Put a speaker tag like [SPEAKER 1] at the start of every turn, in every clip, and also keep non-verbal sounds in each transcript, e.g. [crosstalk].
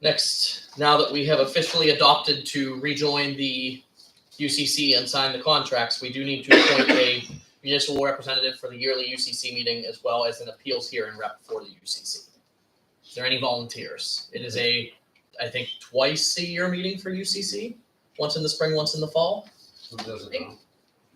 [SPEAKER 1] Next, now that we have officially adopted to rejoin the UCC and sign the contracts, we do need to appoint a municipal representative for the yearly UCC meeting as well as an appeals hearing rep for the UCC. Is there any volunteers? It is a, I think, twice a year meeting for UCC, once in the spring, once in the fall.
[SPEAKER 2] Who doesn't
[SPEAKER 3] Thank-
[SPEAKER 2] know?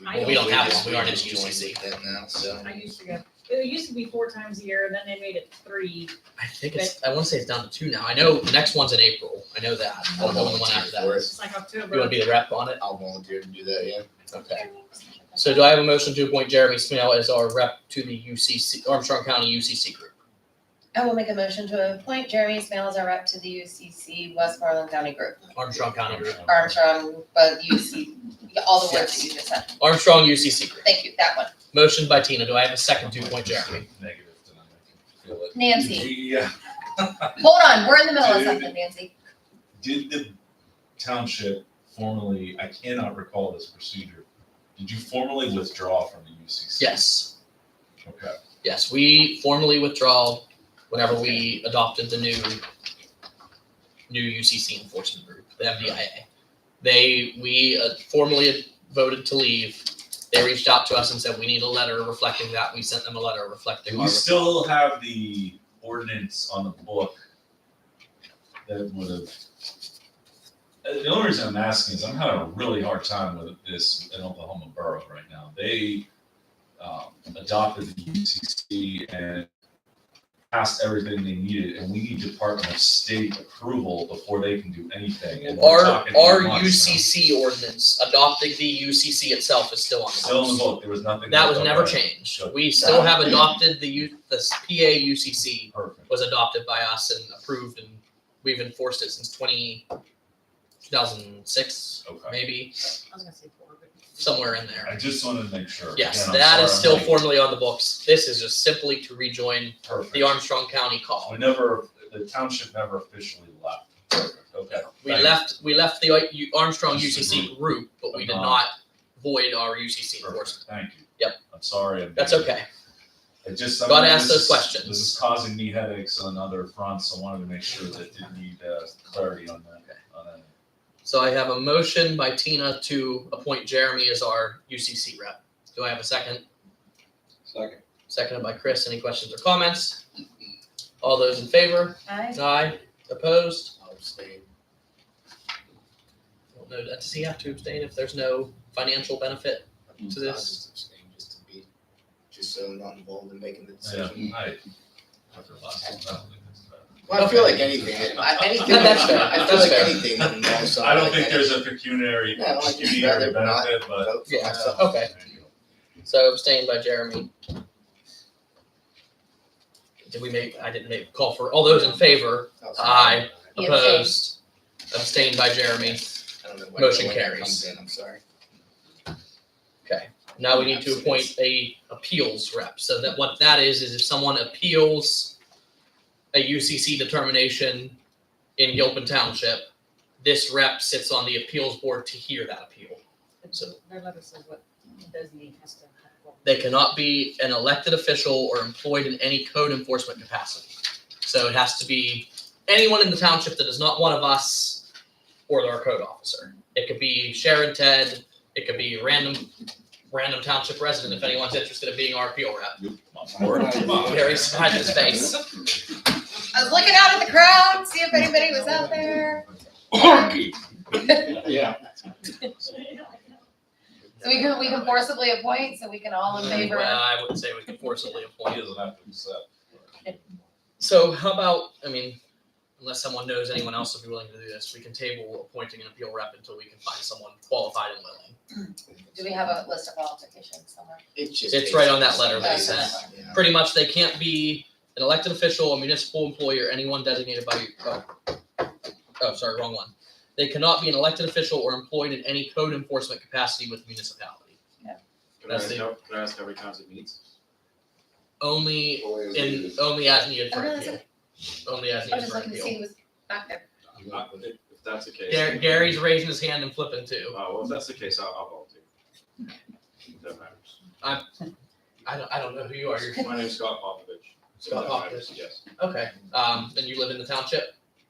[SPEAKER 3] I
[SPEAKER 1] We don't have
[SPEAKER 4] just-
[SPEAKER 1] one, we aren't
[SPEAKER 4] just
[SPEAKER 1] in
[SPEAKER 4] joined
[SPEAKER 1] UCC.
[SPEAKER 4] with them now, so.
[SPEAKER 3] I used to go, it used to be four times a year, and then they made it three.
[SPEAKER 1] I think it's, I wanna say it's down to two now. I know the next one's in April. I know that. I
[SPEAKER 4] I'll
[SPEAKER 1] don't know when the one
[SPEAKER 4] volunteer
[SPEAKER 1] after that.
[SPEAKER 4] for it.
[SPEAKER 1] is.
[SPEAKER 3] It's like
[SPEAKER 1] You wanna
[SPEAKER 3] October.
[SPEAKER 1] be the rep on it?
[SPEAKER 4] I'll volunteer to do that, yeah.
[SPEAKER 1] Okay. So do I have a motion to appoint Jeremy Smale as our rep to the UCC, Armstrong County UCC group?
[SPEAKER 5] I will make a motion to appoint Jeremy Smales as our rep to the UCC Westmoreland County Group.
[SPEAKER 1] Armstrong County group.
[SPEAKER 5] Armstrong, but UC, all the words that you just said.
[SPEAKER 1] Armstrong UCC group.
[SPEAKER 5] Thank you, that one.
[SPEAKER 1] Motion by Tina. Do I have a second to appoint Jeremy?
[SPEAKER 2] Negative tonight, I can feel it.
[SPEAKER 5] Nancy,
[SPEAKER 6] Yeah,
[SPEAKER 5] hold on, we're in the middle of something, Nancy.
[SPEAKER 6] did the township formally, I cannot recall this procedure, did you formally withdraw from the UCC?
[SPEAKER 1] Yes,
[SPEAKER 6] Okay,
[SPEAKER 1] yes. We formally withdraw whenever we adopted the new new UCC enforcement group, the MDIA. They we uh, formally voted to leave. They reached out to us and said we need a letter reflecting that. We sent them a letter reflecting
[SPEAKER 6] do
[SPEAKER 1] our.
[SPEAKER 6] we still have the ordinance on the book that would have? Uh, The only reason I'm asking is I'm having a really hard time with this in Oklahoma borough right now. They um, adopted the UCC and passed everything they needed, and we need Department of State approval before they can do anything. and we're
[SPEAKER 1] Our
[SPEAKER 6] talking
[SPEAKER 1] our
[SPEAKER 6] months now.
[SPEAKER 1] UCC ordinance adopting the UCC itself is still on the
[SPEAKER 6] Still in
[SPEAKER 1] books.
[SPEAKER 6] the book, there was nothing.
[SPEAKER 1] That was
[SPEAKER 6] left
[SPEAKER 1] never
[SPEAKER 6] over.
[SPEAKER 1] changed.
[SPEAKER 6] Good.
[SPEAKER 1] We still have adopted the U, the s- PA UCC
[SPEAKER 6] Perfect.
[SPEAKER 1] was adopted by us and approved and we've enforced it since 20 2006,
[SPEAKER 6] Okay.
[SPEAKER 1] maybe,
[SPEAKER 3] I was gonna say four, but.
[SPEAKER 1] somewhere in there.
[SPEAKER 6] I just wanted to make sure.
[SPEAKER 1] Yes,
[SPEAKER 6] Again, I'm
[SPEAKER 1] that is
[SPEAKER 6] sorry,
[SPEAKER 1] still
[SPEAKER 6] I'm late.
[SPEAKER 1] formally on the books. This is just simply to rejoin
[SPEAKER 6] Perfect.
[SPEAKER 1] the Armstrong County call.
[SPEAKER 6] We Oh, never, the township never officially left. Perfect, okay.
[SPEAKER 1] We
[SPEAKER 6] Thanks.
[SPEAKER 1] left, we left the I- U- Armstrong
[SPEAKER 6] Just the
[SPEAKER 1] UCC group, but we did
[SPEAKER 6] Uh-huh.
[SPEAKER 1] not void our UCC enforcement.
[SPEAKER 6] Perfect, thank you.
[SPEAKER 1] Yep.
[SPEAKER 6] I'm sorry. I'm-
[SPEAKER 1] That's okay.
[SPEAKER 6] I just.
[SPEAKER 1] Gotta
[SPEAKER 6] I mean,
[SPEAKER 1] ask
[SPEAKER 6] this
[SPEAKER 1] those
[SPEAKER 6] is-
[SPEAKER 1] questions.
[SPEAKER 6] This is causing me headaches on other fronts, so I wanted to make sure that didn't need uh, clarity on that, on that.
[SPEAKER 1] So I have a motion by Tina to appoint Jeremy as our UCC rep. Do I have a second?
[SPEAKER 4] Second.
[SPEAKER 1] Seconded by Chris. Any questions or comments? All those in favor?
[SPEAKER 5] Aye.
[SPEAKER 1] Aye. Opposed?
[SPEAKER 4] I'll abstain.
[SPEAKER 1] Don't know. Does he have to abstain if there's no financial benefit? To this.
[SPEAKER 4] I'll just abstain, just to be, just so I'm not involved in making the decision.
[SPEAKER 6] Yeah, Mm. I- after last one, I don't think that's bad.
[SPEAKER 4] Well, I feel like anything, that-
[SPEAKER 6] [laughs]
[SPEAKER 4] I- anything.
[SPEAKER 1] No, [laughs] that's fair.
[SPEAKER 4] I feel
[SPEAKER 1] That's
[SPEAKER 4] like
[SPEAKER 1] fair.
[SPEAKER 4] anything that involves something.
[SPEAKER 6] I don't
[SPEAKER 4] like
[SPEAKER 6] think
[SPEAKER 4] that,
[SPEAKER 6] there's a pecuniary,
[SPEAKER 4] No, I just
[SPEAKER 6] pecuniary
[SPEAKER 4] rather not
[SPEAKER 6] benefit,
[SPEAKER 4] I
[SPEAKER 6] but.
[SPEAKER 4] vote for
[SPEAKER 1] Yeah,
[SPEAKER 4] myself.
[SPEAKER 1] okay. So abstained by Jeremy. Did we make, I didn't make a call for, all those in favor?
[SPEAKER 4] I'll say
[SPEAKER 1] Aye.
[SPEAKER 5] He abstained.
[SPEAKER 1] Opposed? Abstained by Jeremy.
[SPEAKER 4] I don't know why
[SPEAKER 1] Motion
[SPEAKER 4] no one
[SPEAKER 1] carries.
[SPEAKER 4] comes in, I'm sorry.
[SPEAKER 1] Now we need to appoint a appeals rep, so that what that is, is if someone appeals a UCC determination in Gilpin Township, this rep sits on the appeals board to hear that appeal. So-
[SPEAKER 3] Their letter says what designee has to. have what-
[SPEAKER 1] They cannot be an elected official or employed in any code enforcement capacity. So it has to be anyone in the township that is not one of us or our code officer. It could be Sharon Ted, it could be random, random township resident, if anyone's interested in being our appeal rep. Very sad his face.
[SPEAKER 5] I was looking out at the crowd, see if anybody was out there. [laughs]
[SPEAKER 4] Yeah.
[SPEAKER 3] [laughs]
[SPEAKER 5] So we can, we can forcibly appoint, so we can all in
[SPEAKER 1] Well,
[SPEAKER 5] favor.
[SPEAKER 1] I wouldn't say we can forcibly
[SPEAKER 6] He
[SPEAKER 1] appoint.
[SPEAKER 6] doesn't have to accept.
[SPEAKER 1] So how about, I mean, unless someone knows anyone else would be willing to do this, we can table appointing an appeal rep until we can find someone qualified and willing.
[SPEAKER 5] Do we have a list of qualifications somewhere?
[SPEAKER 4] It's just.
[SPEAKER 1] It's right on that letter
[SPEAKER 5] that he
[SPEAKER 4] Yeah.
[SPEAKER 5] sent.
[SPEAKER 1] Pretty much, they can't be an elected official, a municipal employee, or anyone designated by, oh, oh, sorry, wrong one. They cannot be an elected official or employed in any code enforcement capacity with municipality.
[SPEAKER 7] Can I
[SPEAKER 1] That's the-
[SPEAKER 7] ask, how- can I ask how many times it meets?
[SPEAKER 1] Only in, only as needed for
[SPEAKER 5] Oh, no, that's
[SPEAKER 1] appeal. Only as
[SPEAKER 5] I was
[SPEAKER 1] needed
[SPEAKER 5] just
[SPEAKER 1] for
[SPEAKER 5] looking to see
[SPEAKER 1] appeal.
[SPEAKER 5] who was back there.
[SPEAKER 7] Uh, If if that's the case.
[SPEAKER 1] Gar- Gary's raising his hand and flipping too.
[SPEAKER 7] Oh, well, if that's the case, I'll, I'll volunteer. That matters.
[SPEAKER 1] I don't, I don't know who you are. You're
[SPEAKER 7] My name's Scott Popovich.
[SPEAKER 1] Scott
[SPEAKER 7] That matters, Yes.
[SPEAKER 1] okay. Um, and you live in the township.